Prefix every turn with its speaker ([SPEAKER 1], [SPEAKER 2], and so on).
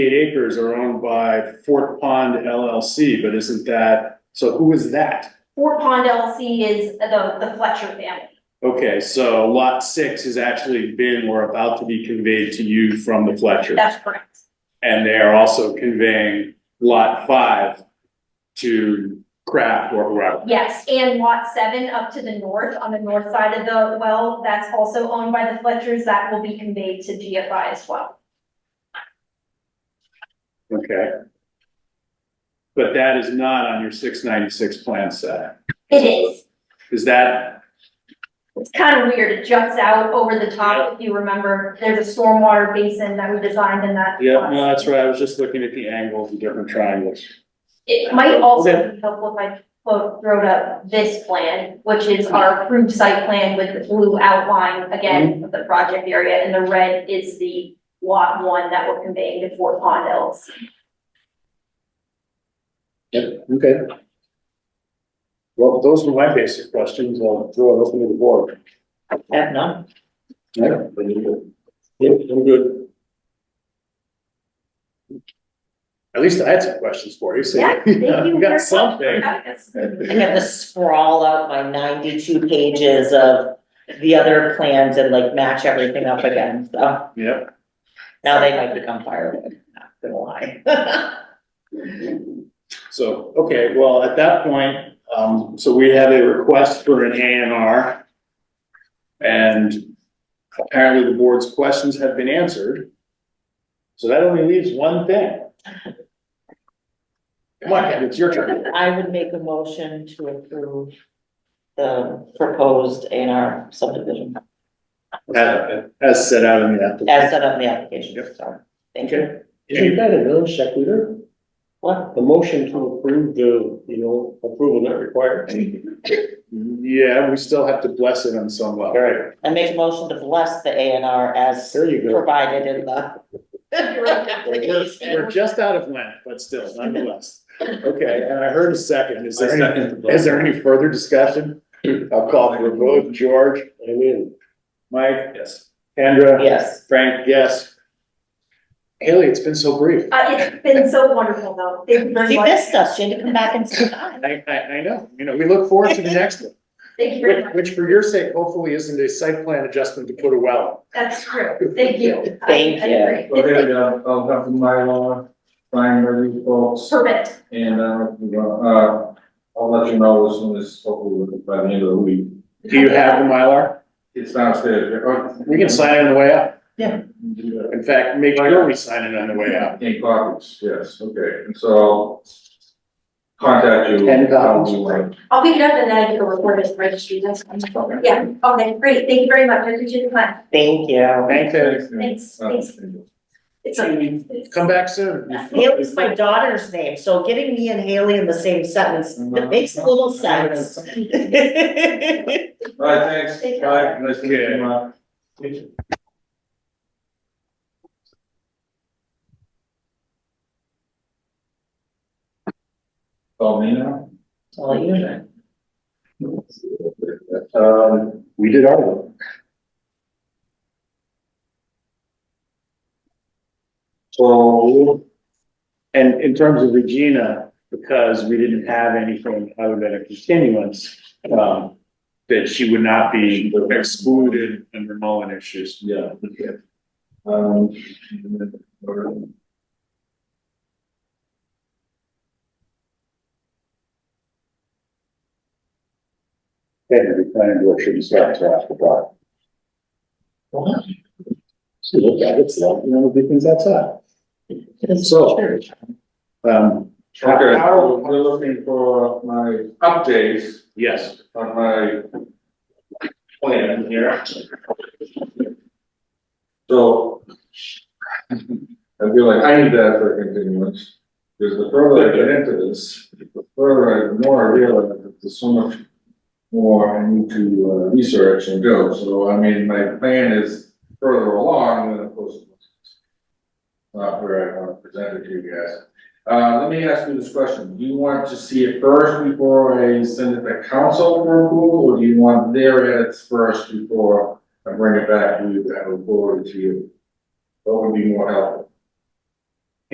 [SPEAKER 1] eight acres are owned by Fort Pond LLC, but isn't that, so who is that?
[SPEAKER 2] Fort Pond LLC is the, the Fletcher family.
[SPEAKER 1] Okay, so lot six has actually been or about to be conveyed to you from the Fletcher.
[SPEAKER 2] That's correct.
[SPEAKER 1] And they are also conveying lot five to Kraft or whoever.
[SPEAKER 2] Yes, and lot seven up to the north, on the north side of the well, that's also owned by the Fletchers. That will be conveyed to GFI as well.
[SPEAKER 1] Okay. But that is not on your six ninety-six plan set.
[SPEAKER 2] It is.
[SPEAKER 1] Is that,
[SPEAKER 2] It's kind of weird. It jumps out over the top, if you remember. There's a stormwater basin that we designed in that.
[SPEAKER 1] yeah, no, that's right. I was just looking at the angles and different triangles.
[SPEAKER 2] It might also
[SPEAKER 1] Okay.
[SPEAKER 2] be helpful if I quote, wrote up this plan, which is our approved site plan with the blue outline
[SPEAKER 1] Mm-hmm.
[SPEAKER 2] again of the project area, and the red is the lot one that we're conveying to Fort Pond Hills.
[SPEAKER 3] Yep, okay.
[SPEAKER 1] Well, those were my basic questions. I'll throw it open to the board.
[SPEAKER 3] Have none? Yeah, but you do. Yep, I'm good.
[SPEAKER 1] At least I had some questions for you, so.
[SPEAKER 2] Yeah, thank
[SPEAKER 1] We
[SPEAKER 2] you very
[SPEAKER 1] got
[SPEAKER 2] much.
[SPEAKER 1] something.
[SPEAKER 2] Yes.
[SPEAKER 4] I had to sprawl out my ninety-two pages of the other plans and like match everything up again, so
[SPEAKER 1] Yep.
[SPEAKER 4] now they might become firewood, not gonna lie.
[SPEAKER 1] So, okay, well, at that point, um, so we have a request for an A and R. And apparently the board's questions have been answered. So that only leaves one thing. Come on, Kevin, it's your turn.
[SPEAKER 4] I would make a motion to approve the proposed A and R subdivision
[SPEAKER 1] As as set out in the application.
[SPEAKER 4] as set up in the application, sorry, thank you.
[SPEAKER 3] Isn't that a non sequitur?
[SPEAKER 4] What?
[SPEAKER 3] A motion to approve the, you know, approval not required?
[SPEAKER 1] Yeah, we still have to bless it on some level.
[SPEAKER 3] All right,
[SPEAKER 4] I make a motion to bless the A and R as
[SPEAKER 3] there you go.
[SPEAKER 4] provided in the.
[SPEAKER 1] We're, we're just out of Lent, but still nonetheless. Okay, and I heard a second. Is there any, is there any further discussion? I'll call for a vote. George,
[SPEAKER 3] I'm in.
[SPEAKER 1] Mike? Yes. Andrea?
[SPEAKER 4] Yes,
[SPEAKER 1] Frank, yes. Haley, it's been so brief.
[SPEAKER 2] Uh, it's been so wonderful though. Thank you very
[SPEAKER 4] she
[SPEAKER 2] much.
[SPEAKER 4] missed us, she had to come back and say hi.
[SPEAKER 1] I, I, I know, you know, we look forward to the next one,
[SPEAKER 2] Thank you very
[SPEAKER 1] which,
[SPEAKER 2] much.
[SPEAKER 1] which for your sake, hopefully isn't a site plan adjustment to put a well.
[SPEAKER 2] That's true. Thank you. I-
[SPEAKER 4] Thank
[SPEAKER 2] I
[SPEAKER 4] you.
[SPEAKER 2] agree.
[SPEAKER 5] Okay, I'll, I'll have the Mylar, find where these folks,
[SPEAKER 2] Perfect.
[SPEAKER 5] and, uh, if you want, uh, I'll let you know as soon as, hopefully, by the end of the week.
[SPEAKER 1] Do you have the Mylar?
[SPEAKER 5] It's downstairs. uh,
[SPEAKER 1] We can sign it on the way out.
[SPEAKER 5] Yeah.
[SPEAKER 1] In fact, make sure we sign it on the way out.
[SPEAKER 5] In copies, yes, okay, and so I'll contact you.
[SPEAKER 1] Ten copies.
[SPEAKER 5] probably when-
[SPEAKER 2] I'll pick it up and then I can record it and registry. That's wonderful. Yeah. Okay, great. Thank you very much. I appreciate the time.
[SPEAKER 4] Thank you.
[SPEAKER 1] Thanks, Haley.
[SPEAKER 2] Thanks,
[SPEAKER 5] Uh,
[SPEAKER 2] thanks. It's okay.
[SPEAKER 1] Come back soon.
[SPEAKER 4] Haley's my daughter's name, so getting me and Haley in the same sentence, it makes a little sense.
[SPEAKER 5] All right, thanks,
[SPEAKER 2] Take
[SPEAKER 5] bye,
[SPEAKER 2] care.
[SPEAKER 5] nice to meet you,
[SPEAKER 1] Okay.
[SPEAKER 5] Mark. Call me now?
[SPEAKER 4] Well, you know.
[SPEAKER 5] Um,
[SPEAKER 1] We did our work.
[SPEAKER 5] so,
[SPEAKER 1] And in terms of Regina, because we didn't have anything other than a continuance, um, that she would not be excluded under Mullen issues.
[SPEAKER 5] yeah. Um.
[SPEAKER 1] Technically, planning board shouldn't start until after dark.
[SPEAKER 4] What?
[SPEAKER 1] She looked at it, so, you know, we do things outside. So- Um,
[SPEAKER 5] Okay, so we're looking for my updates
[SPEAKER 1] yes,
[SPEAKER 5] on my plan here. So. I feel like I need that for continuance, because the further I get into this, the further I, the more I realize that there's so much more I need to uh, research and go, so I mean, my plan is further along than of course. it's Not where I want to present it to you guys. Uh, let me ask you this question, do you want to see it first before I send it to council for approval, or do you want their edits first before I bring it back to you, that will forward it to you? What would be more helpful?